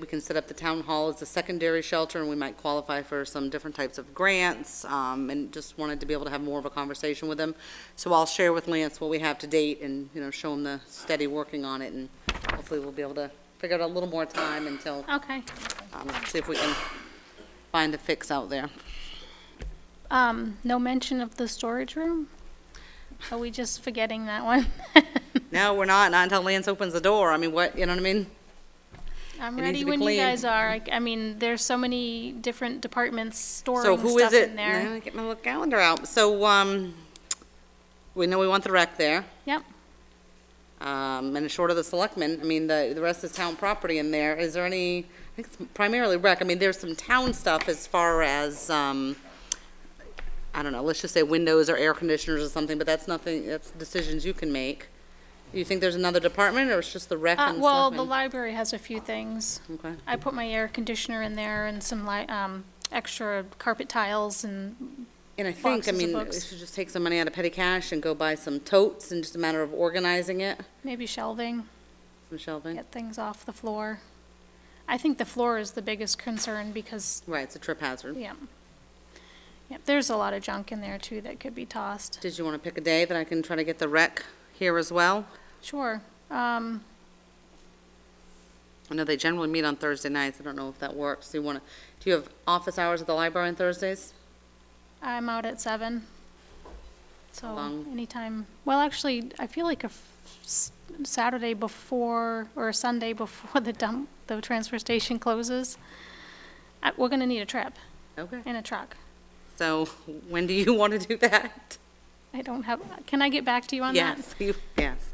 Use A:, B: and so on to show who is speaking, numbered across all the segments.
A: We can set up the town hall as a secondary shelter, and we might qualify for some different types of grants, um, and just wanted to be able to have more of a conversation with them. So I'll share with Lance what we have to date and, you know, show him the steady working on it, and hopefully we'll be able to figure out a little more time until,
B: Okay.
A: um, see if we can find a fix out there.
B: Um, no mention of the storage room? Are we just forgetting that one?
A: No, we're not, not until Lance opens the door. I mean, what, you know what I mean?
B: I'm
A: It needs
B: ready
A: to be
B: when you
A: clean.
B: guys are. I, I mean, there's so many different departments
A: So
B: storing
A: who is
B: stuff
A: it?
B: in
A: Now I
B: there.
A: Get my little calendar out. So, um, we know we want the rec there.
B: Yep.
A: Um, and short of the selectmen, I mean, the, the rest is town property in there. Is there any, I think it's primarily rec. I mean, there's some town stuff as far as, um, I don't know, let's just say windows or air conditioners or something, but that's nothing, that's decisions you can make. You think there's another department or it's just the rec
B: Uh,
A: and
B: well, the
A: selectmen?
B: library has a few things.
A: Okay.
B: I put my air conditioner in there and some li- um, extra carpet tiles and,
A: And I think, I
B: boxes of
A: mean, we
B: books.
A: should just take some money out of petty cash and go buy some totes and just a matter of organizing it,
B: maybe shelving,
A: some shelving.
B: get things off the floor. I think the floor is the biggest concern because,
A: Right, it's a trip hazard.
B: yeah. Yep, there's a lot of junk in there too that could be tossed.
A: Did you want to pick a day that I can try to get the rec here as well?
B: Sure. Um,
A: I know they generally meet on Thursday nights. I don't know if that works. Do you want to, do you have office hours at the library on Thursdays?
B: I'm out at seven. So
A: Long.
B: anytime, well, actually, I feel like a f- s- Saturday before, or a Sunday before the dump, the transfer station closes, I- we're gonna need a trip
A: Okay.
B: and a truck.
A: So when do you want to do that?
B: I don't have, can I get back to you on that?
A: Yes, you, yes.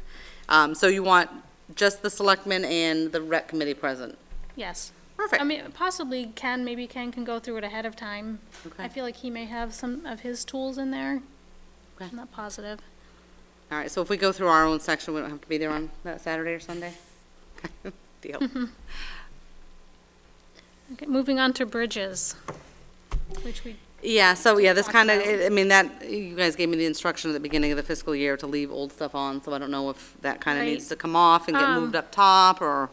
A: Um, so you want just the selectmen and the rec committee present?
B: Yes. I
A: Perfect.
B: mean, possibly Ken, maybe Ken can go through it ahead of time.
A: Okay.
B: I feel like he may have some of his tools in there.
A: Okay.
B: I'm not positive.
A: All right, so if we go through our own section, we don't have to be there on that Saturday or Sunday? Deal.
B: Okay, moving on to bridges, which we
A: Yeah, so, yeah, this
B: Talk
A: kind of,
B: about-
A: I mean, that, you guys gave me the instruction at the beginning of the fiscal year to leave old stuff on, so I don't know if that kind of
B: Right.
A: needs to come off and get
B: Um,
A: moved up top, or,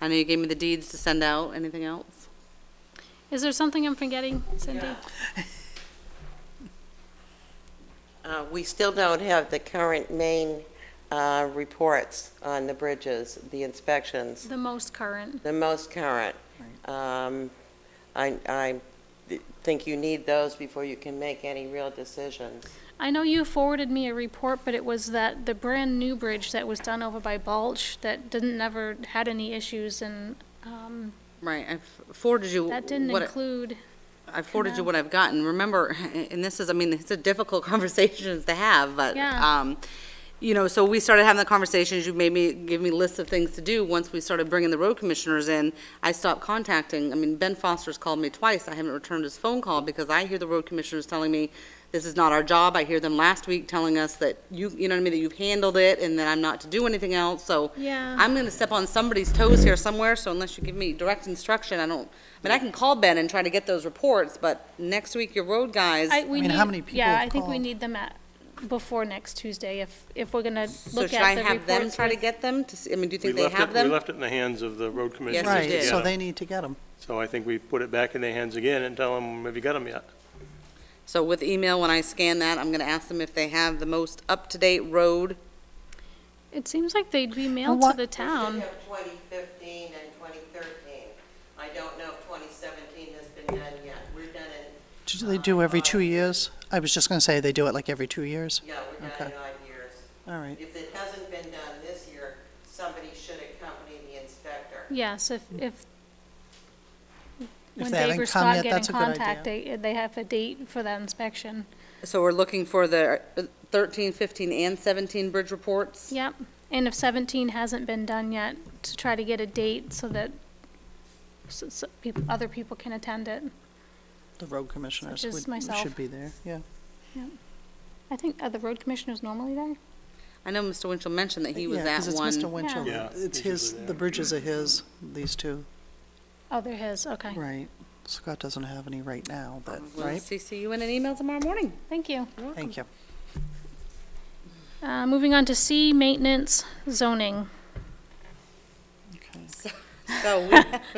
A: I know you gave me the deeds to send out, anything else?
B: Is there something I'm forgetting, Cindy?
C: Uh, We still don't have the current main uh, reports on the bridges, the inspections,
B: The most current.
C: the most current. Um, I I think you need those before you can make any real decisions.
B: I know you forwarded me a report, but it was that the brand-new bridge that was done over by Balch that didn't, never had any issues, and um,
A: Right, I forwarded you.
B: that didn't
A: what-
B: include,
A: I forwarded you what I've gotten. Remember, and this is, I mean, it's a difficult conversation to have, but,
B: Yeah.
A: um, you know, so we started having the conversations, you made me, give me lists of things to do. Once we started bringing the road commissioners in, I stopped contacting, I mean, Ben Foster's called me twice. I haven't returned his phone call because I hear the road commissioners telling me, this is not our job. I hear them last week telling us that you, you know what I mean, that you've handled it and that I'm not to do anything else, so.
B: Yeah.
A: I'm gonna step on somebody's toes here somewhere, so unless you give me direct instruction, I don't, I mean, I can call Ben and try to get those reports, but next week, your road guys,
B: I, we
D: mean,
B: need,
D: how many people
B: yeah, I
D: have
B: think we
D: called?
B: need them at, before next Tuesday, if, if we're gonna
A: so
B: look
A: should I
B: at the
A: have them
B: reports
A: try to
B: with.
A: get them? To, see- I mean, do you
E: We
A: think they
E: left it-
A: have them?
E: We left it in the hands of the road commissioners.
A: Yes, you
E: to
A: did.
D: Right,
E: get
D: so
E: 'em.
D: they need to get them.
E: So I think we put it back in their hands again and tell them, have you got them yet?
A: So with email, when I scan that, I'm gonna ask them if they have the most up-to-date road.
B: It seems like they'd be mailed to
D: what-
B: the
C: We
B: town.
C: should have 2015 and 2013. I don't know if 2017 has been done yet. We're done in,
D: Do they do every two years? I was just gonna say they do it like every two years.
C: yeah, we're done in
D: Okay.
C: odd years.
D: All right.
C: If it hasn't been done this year, somebody should accompany the inspector.
B: Yes, if, if,
D: If
B: when
D: they haven't
B: Dave or
D: come
B: Scott
D: yet,
B: get in
D: that's a good
B: contact,
D: idea.
B: they, they have a date for that inspection.
A: So we're looking for the uh, 13, 15, and seventeen bridge reports?
B: Yep, and if seventeen hasn't been done yet, to try to get a date so that s s people, other people can attend it.
D: The road commissioners
B: as
D: would,
B: myself.
D: should be there, yeah.
B: I think, are the road commissioners normally there?
A: I know Mr. Winchell mentioned that he was
D: Yeah,
A: at
D: 'cause
A: one.
D: it's Mr. Winchell.
E: Yeah,
D: It's
E: he's
D: his,
E: usually
D: the
E: there.
D: bridges are his, these two,
B: Oh, they're his, okay,
D: right. Scott doesn't have any right now, but,
A: We'll
D: right?
A: CC you in an email tomorrow morning.
B: thank you.
D: Thank you.
B: Uh, moving on to C, maintenance zoning.
D: Okay.
A: So we,